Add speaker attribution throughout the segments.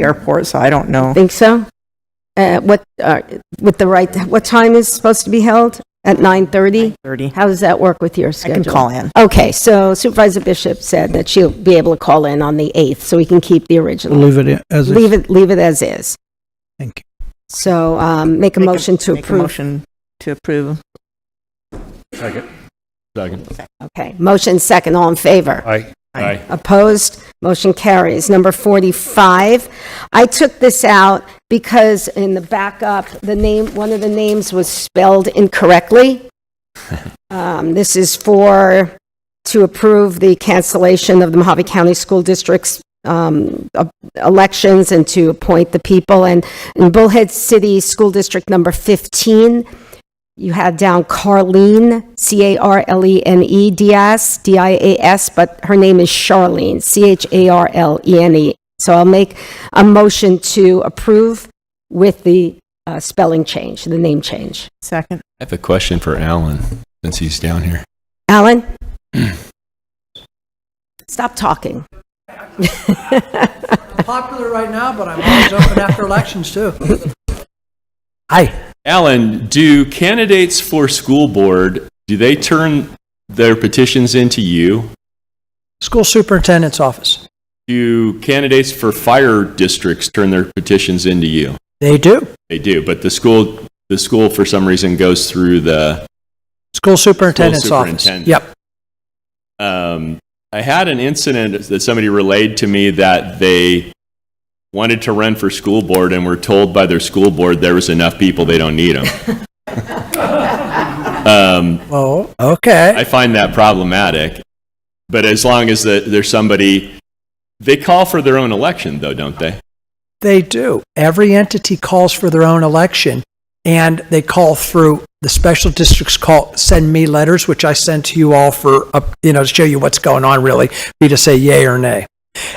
Speaker 1: the airport, so I don't know.
Speaker 2: Think so? Uh, What, uh, with the right, what time is supposed to be held? At 9:30?
Speaker 1: 30.
Speaker 2: How does that work with your
Speaker 1: I
Speaker 2: schedule?
Speaker 1: can call in.
Speaker 2: Okay, so Supervisor Bishop said that she'll be able to call in on the 8th, so we can keep the original.
Speaker 3: Leave it in- as is.
Speaker 2: Leave it, leave it as is.
Speaker 3: Thank you.
Speaker 2: So um, make a
Speaker 1: Make
Speaker 2: motion to
Speaker 1: Make a
Speaker 2: approve.
Speaker 1: motion to approve.
Speaker 4: Second. Second.
Speaker 2: Okay, motion second, all in favor?
Speaker 4: Aye. Aye.
Speaker 2: Opposed? Motion carries. Number 45, I took this out because in the backup, the name, one of the names was spelled incorrectly. Um, This is for, to approve the cancellation of the Mojave County School District's um, uh, elections and to appoint the people. And in Bullhead City School District Number 15, you had down Carlene, C-A-R-L-E-N-E E Diaz, D-I-A-S, but her name is Charlene, C-H-A-R-L-E-N-E. E So I'll make a motion to approve with the uh, spelling change, the name change.
Speaker 1: Second.
Speaker 5: I have a question for Alan since he's down here.
Speaker 2: Alan? Stop talking.
Speaker 6: popular right now, but I'm always open after elections too.
Speaker 5: Alan, do candidates for school board do they turn their petitions into you?
Speaker 6: School superintendent's office.
Speaker 5: Do candidates for fire districts turn their petitions into you?
Speaker 6: They do.
Speaker 5: They do, but the school the school for some reason goes through the
Speaker 6: School superintendent's
Speaker 5: superintendent.
Speaker 6: office. Yep.
Speaker 5: um, I had an incident that somebody relayed to me that they wanted to run for school board and were told by their school board there was enough people they don't need them.
Speaker 6: Oh, okay.
Speaker 5: I find that problematic. But as long as the, there's somebody, they call for their own election, though, don't they?
Speaker 6: They do. Every entity calls for their own election and they call through, the special districts call, send me letters, which I send to you all for, up- you know, to show you what's going on really, be to say yay or nay.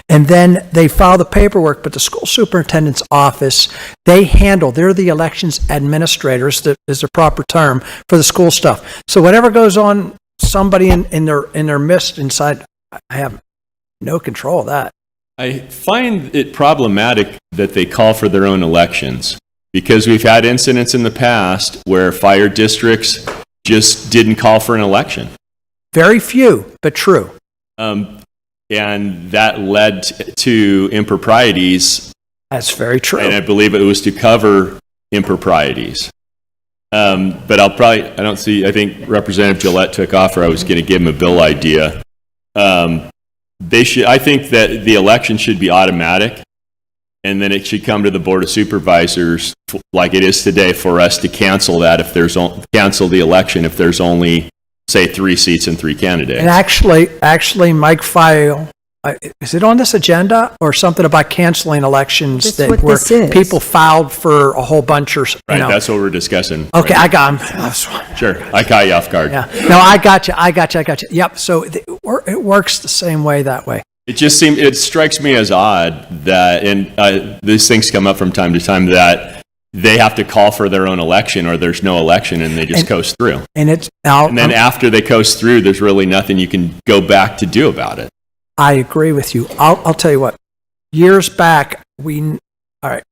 Speaker 6: And then they file the paperwork, but the school superintendent's office, they handle, they're the elections administrators, that is the proper term for the school stuff. So whatever goes on, somebody in, in their, in their midst inside, I have no control of that.
Speaker 5: I find it problematic that they call for their own elections because we've had incidents in the past where fire districts just didn't call for an election.
Speaker 6: Very few, but true.
Speaker 5: Um, and that led t- to improprieties,
Speaker 6: That's very true.
Speaker 5: and I believe it was to cover improprieties. Um, but I'll probably, I don't see, I think Representative Gillette took off, or I was going to give him a bill idea. Um, they should, I think that the election should be automatic, and then it should come to the Board of Supervisors, f- like it is today, for us to cancel that if there's, on- cancel the election if there's only, say, three seats and three candidates.
Speaker 6: And actually, actually, Mike File, I- is it on this agenda or something about canceling elections
Speaker 2: That's
Speaker 6: that
Speaker 2: what
Speaker 6: were,
Speaker 2: this is.
Speaker 6: people filed for a whole bunch or, s- you
Speaker 5: Right,
Speaker 6: know?
Speaker 5: that's what we're discussing.
Speaker 6: Okay, I got 'em.
Speaker 5: Sure, I caught you off guard.
Speaker 6: Yeah, no, I got you, I got you, I got you. Yep, so it wor- it works the same way that way.
Speaker 5: It just seems it strikes me as odd that, and uh, these things come up from time to time that they have to call for their own election or there's no election and they just
Speaker 6: And-
Speaker 5: coast through.
Speaker 6: And it's, now,
Speaker 5: And then after they coast through, there's really nothing you can go back to do about it.
Speaker 6: I agree with you. I'll, I'll tell you what. Years back, we, all right.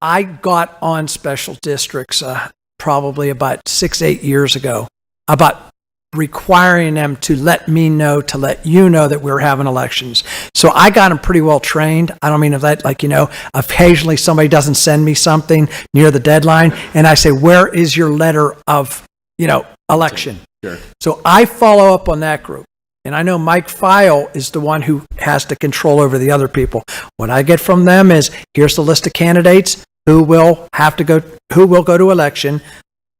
Speaker 6: I got on special districts uh, probably about six, eight years ago about requiring them to let me know, to let you know that we were having elections. So I got them pretty well trained. I don't mean of that, like, you know, occasionally somebody doesn't send me something near the deadline and I say, where is your letter of, you know, election?
Speaker 5: Sure.
Speaker 6: So I follow up on that group. And I know Mike File is the one who has the control over the other people. What I get from them is here's the list of candidates who will have to go, who will go to election,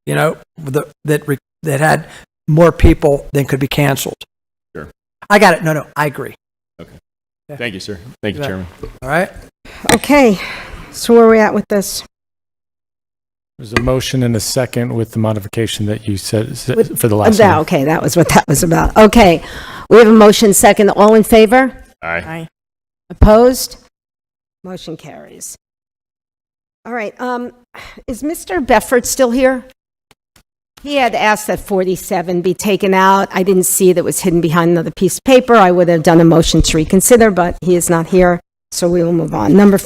Speaker 6: you know, the, that, re- that had more people than could be canceled.
Speaker 5: Sure.
Speaker 6: I got it. No, no, I agree.
Speaker 5: Thank you, sir. Thank you,
Speaker 6: Yeah.
Speaker 5: Chairman.
Speaker 6: All right.
Speaker 2: Okay, so where are we at with this?
Speaker 7: There's a motion and a second with the modification that you said
Speaker 2: With-
Speaker 7: for the last
Speaker 2: That-
Speaker 7: one.
Speaker 2: Okay, that was what that was about. Okay, we have a motion second. All in favor?
Speaker 5: Aye.
Speaker 1: Aye.
Speaker 2: Opposed? Motion carries. All right, um, is Mr. Befford still here? He had asked that 47 be taken out. I didn't see that it was hidden behind another piece of paper. I would have done a motion to reconsider, but he is not here, So we will move on. Number